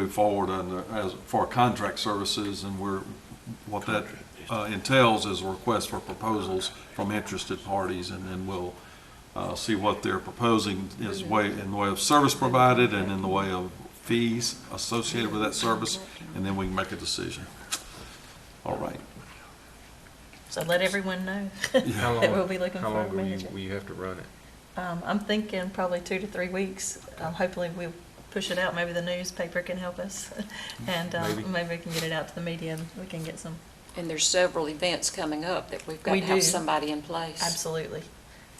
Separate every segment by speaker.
Speaker 1: move forward on the, as, for contract services, and we're, what that uh, entails is a request for proposals from interested parties, and then we'll uh, see what they're proposing is way, in the way of service provided and in the way of fees associated with that service, and then we can make a decision. All right.
Speaker 2: So let everyone know
Speaker 1: Yeah.
Speaker 2: that we'll be looking
Speaker 3: How
Speaker 2: for a
Speaker 3: long will you,
Speaker 2: manager.
Speaker 3: will you have to run it?
Speaker 2: Um, I'm thinking probably two to three weeks. Um, hopefully we'll push it out. Maybe the newspaper can help us. And,
Speaker 3: Maybe.
Speaker 2: um, maybe we can get it out to the media and we can get some,
Speaker 4: And there's several events coming up that we've got
Speaker 2: We
Speaker 4: to
Speaker 2: do.
Speaker 4: have somebody in place.
Speaker 2: absolutely.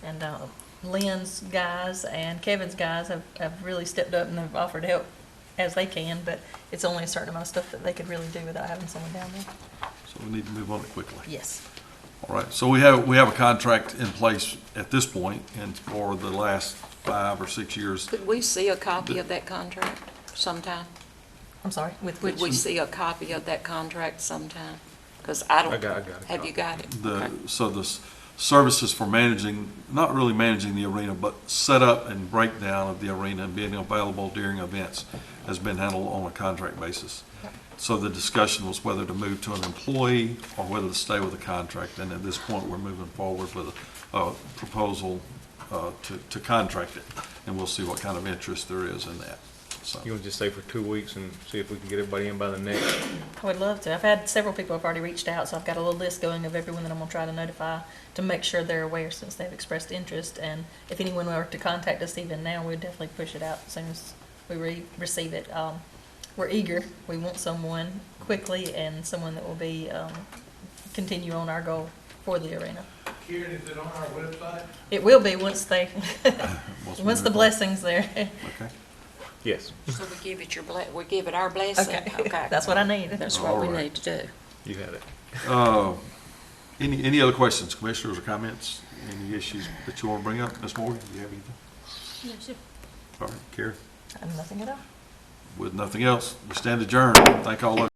Speaker 2: And, um, Lynn's guys and Kevin's guys have, have really stepped up and have offered help as they can, but it's only a certain amount of stuff that they could really do without having someone down there.
Speaker 1: So we need to move on it quickly.
Speaker 2: Yes.
Speaker 1: All right, so we have, we have a contract in place at this point, and for the last five or six years,
Speaker 4: Could we see a copy of that contract sometime?
Speaker 2: I'm sorry, with which?
Speaker 4: Could we see a copy of that contract sometime? Because I don't.
Speaker 3: I got- I got a
Speaker 4: Have
Speaker 3: copy.
Speaker 4: you got it?
Speaker 1: the,
Speaker 4: Okay.
Speaker 1: so the s- services for managing, not really managing the arena, but setup and breakdown of the arena and being available during events has been handled on a contract basis. So the discussion was whether to move to an employee or whether to stay with a contract, and at this point, we're moving forward with a, a proposal, uh, to, to contract it, and we'll see what kind of interest there is in that, so.
Speaker 3: You want to just stay for two weeks and see if we can get everybody in by the next?
Speaker 2: I would love to. I've had several people have already reached out, so I've got a little list going of everyone that I'm gonna try to notify to make sure they're aware since they've expressed interest. And if anyone were to contact us even now, we'd definitely push it out as soon as we re- receive it. Um, we're eager. We want someone quickly and someone that will be, um, continue on our goal for the arena.
Speaker 5: Karen, is it on our website?
Speaker 2: It will be once they,
Speaker 1: Once we
Speaker 2: once the
Speaker 1: move forward.
Speaker 2: blessing's there.
Speaker 1: Okay.
Speaker 3: Yes.
Speaker 4: So we give it your, ble- we give it our blessing?
Speaker 2: Okay, that's what I need.
Speaker 4: That's what we
Speaker 1: All right.
Speaker 4: need to do.
Speaker 3: You had it.
Speaker 1: Uh, Any, any other questions, commissioners or comments? Any issues that you want to bring up? Ms. Morgan, do you have anything? All right, Karen,
Speaker 2: I'm nothing at all.
Speaker 1: with nothing else, we stand adjourned. Thank all of you.